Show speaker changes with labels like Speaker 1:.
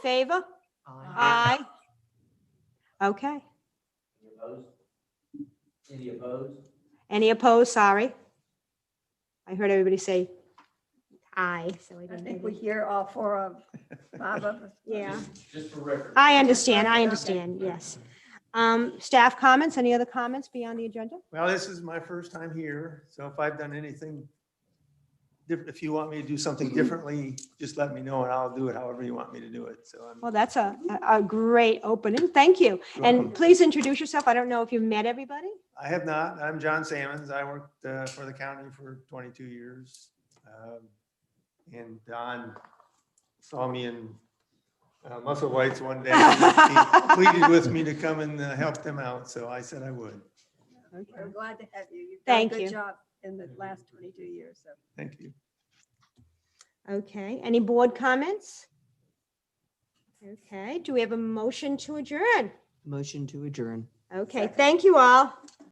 Speaker 1: Favor?
Speaker 2: Aye.
Speaker 1: Aye. Okay.
Speaker 2: Any opposed? Any opposed?
Speaker 1: Any opposed? Sorry. I heard everybody say aye, so I
Speaker 3: I
Speaker 1: didn't.
Speaker 3: think
Speaker 1: hear
Speaker 3: we
Speaker 1: the-
Speaker 3: hear all four of, five of us.
Speaker 1: Yeah,
Speaker 2: Just- Just for record.
Speaker 1: I understand, I
Speaker 3: Okay.
Speaker 1: understand, yes. Um, Staff comments, any other comments beyond the agenda?
Speaker 4: Well, this is my first time here, so if I've done anything, diff- if you want me to do something differently, just let me know and I'll do it however you want me to do it. So I'm
Speaker 1: Well, that's a, a- a great opening, thank you. And
Speaker 4: welcome.
Speaker 1: please introduce yourself, I don't know if you met everybody.
Speaker 4: I have not. I'm John Sammons. I worked uh, for the county for 22 years. Um, And Don saw me in uh, Muscle Whites one day. He Pleaded with me to come and uh, help them out, so I said I would.
Speaker 3: We're glad to have you. You've
Speaker 1: Thank
Speaker 3: done a
Speaker 1: you.
Speaker 3: good job in the last 22 years, so.
Speaker 4: Thank you.
Speaker 1: Okay, any board comments? Okay, do we have a motion to adjourn?
Speaker 5: Motion to adjourn.
Speaker 1: Okay, thank you all.